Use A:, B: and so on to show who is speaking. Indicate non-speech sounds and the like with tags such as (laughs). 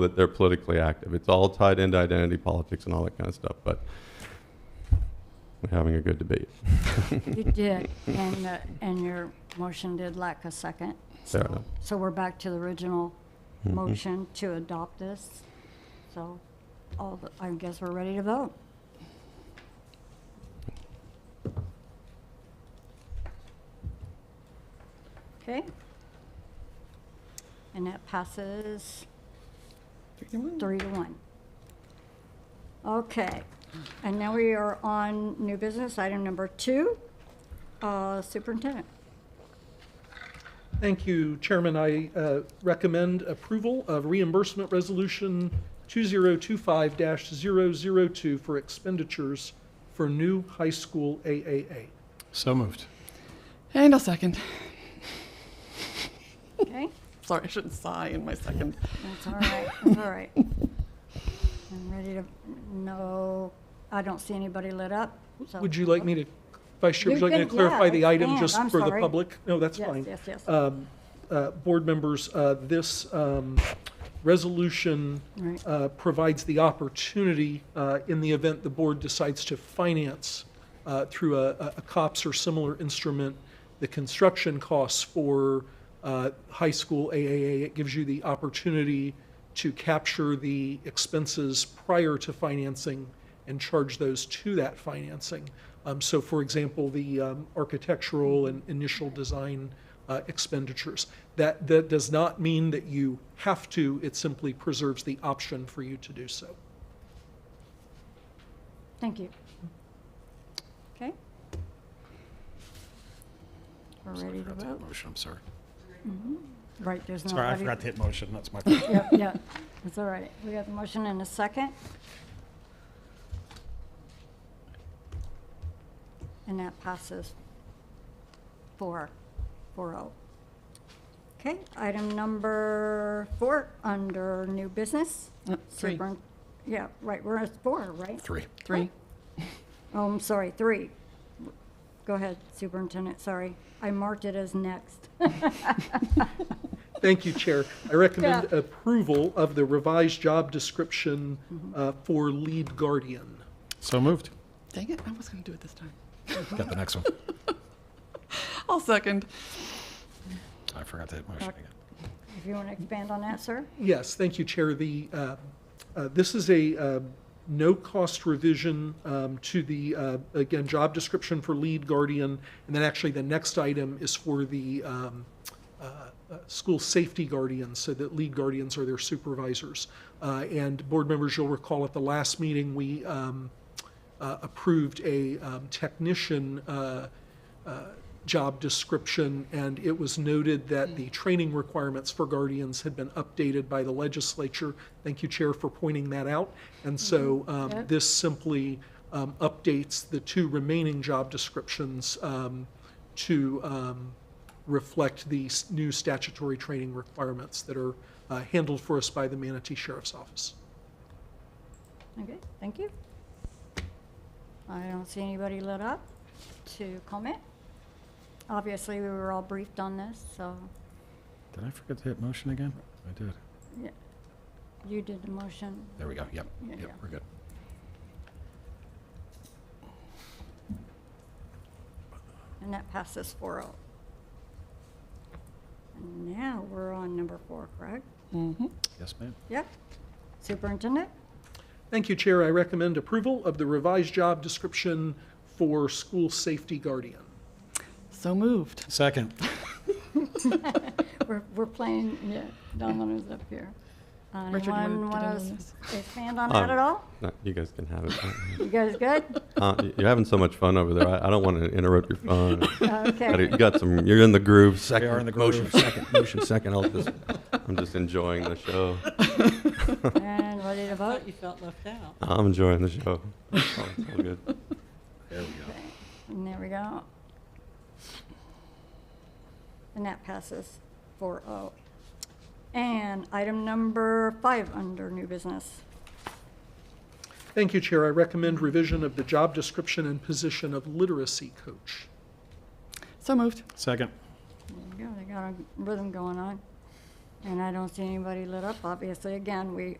A: that they're politically active. It's all tied into identity politics and all that kind of stuff, but we're having a good debate.
B: You did, and, uh, and your motion did lack a second.
A: Fair
B: so-
A: enough.
B: So we're back to the original motion to adopt this. So, all, the- I guess we're ready to vote. Okay? And that passes three to one. Okay, and now we are on new business, item number two, uh, superintendent.
C: Thank you, Chairman. I uh, recommend approval of reimbursement resolution 2025-002 for expenditures for new high school AAA.
D: So moved.
E: And I'll second.
B: Okay,
E: Sorry, I shouldn't sigh in my second.
B: that's all right, that's all right. I'm ready to, no, I don't see anybody lit up, so.
C: Would you like me to, Vice Chair, would you
B: You
C: like me to
B: can- yeah,
C: clarify the item
B: expand.
C: just
B: I'm
C: for the
B: sorry.
C: public? No, that's
B: Yes,
C: fine.
B: yes, yes.
C: Um, uh, Board members, uh, this um, resolution
B: Right.
C: uh, provides the opportunity, uh, in the event the board decides to finance uh, through a- a a COPS or similar instrument, the construction costs for uh, high school AAA. It gives you the opportunity to capture the expenses prior to financing and charge those to that financing. Um, So for example, the um, architectural and initial design uh, expenditures. That, that does not mean that you have to, it simply preserves the option for you to do so.
B: Thank you. Okay. We're ready to vote.
D: Motion, I'm sorry.
B: Right, there's
D: Sorry, I
B: nobody.
D: forgot to hit motion, that's my fault.
B: Yep, yeah, that's all right. We got the motion and a second. And that passes four, four oh. Okay, item number four, under new business.
E: Uh, Three.
B: Superin- Yeah, right, we're at four, right?
D: (laughs) Three.
E: Three.
B: Oh, I'm sorry, three. Go ahead, Superintendent, sorry. I marked it as next. (laughs)
C: Thank you, Chair. I recommend
B: Yeah.
C: approval of the revised job description uh, for lead guardian.
D: So moved.
E: Dang it, I was going to do it this time.
D: Got the (laughs) next one.
E: I'll second.
D: I forgot to hit motion again.
B: If you want to expand on that, sir?
C: Yes, thank you, Chair. The, uh, uh, this is a uh, no-cost revision um, to the, uh, again, job description for lead guardian, and then actually the next item is for the um, uh, uh, school safety guardians, so that lead guardians are their supervisors. Uh, And board members, you'll recall at the last meeting, we um, uh, approved a um, technician uh, job description, and it was noted that the training requirements for guardians had been updated by the legislature. Thank you, Chair, for pointing that out. And so um,
B: Yep.
C: this simply um, updates the two remaining job descriptions um, to um, reflect the s- new statutory training requirements that are uh, handled for us by the Manatee Sheriff's Office.
B: Okay, thank you. I don't see anybody lit up to comment. Obviously, we were all briefed on this, so
D: Did I forget to hit motion again? I did.
B: you did the motion.
D: There we go, yep,
B: Yeah,
D: yep,
B: yeah.
D: we're good.
B: And that passes 4-0. And Now, we're on number four, correct?
E: Mm-hmm.
D: Yes, ma'am.
B: Yep. Superintendent?
C: Thank you, Chair. I recommend approval of the revised job description for school safety guardian.
E: So moved.
D: Second.
B: We're, we're playing, yeah, Domino's up here. Uh,
E: Richard, you wanna
B: Anyone
E: get
B: want
E: in
B: to
E: on
B: s-
E: this?
B: expand on that
A: Um,
B: at all?
A: No, You guys can have it.
B: You guys good?
A: Uh, y- You're having so much fun over there. I I don't want to interrupt your fun. Got
B: Okay.
A: it. You got some, you're in the groove.
D: We are in the
A: Second, motion,
D: groove.
A: second, motion, second. I'll just, I'm just enjoying the show.
B: And ready to vote?
F: thought you felt left out.
A: I'm enjoying the show. It's all it's all good.
D: There we go.
B: And there we go. And that passes 4-0. And item number five under new business.
C: Thank you, Chair. I recommend revision of the job description and position of literacy coach.
E: So moved.
D: Second.
B: There you go, they got a rhythm going on. And I don't see anybody lit up, obviously. Again, we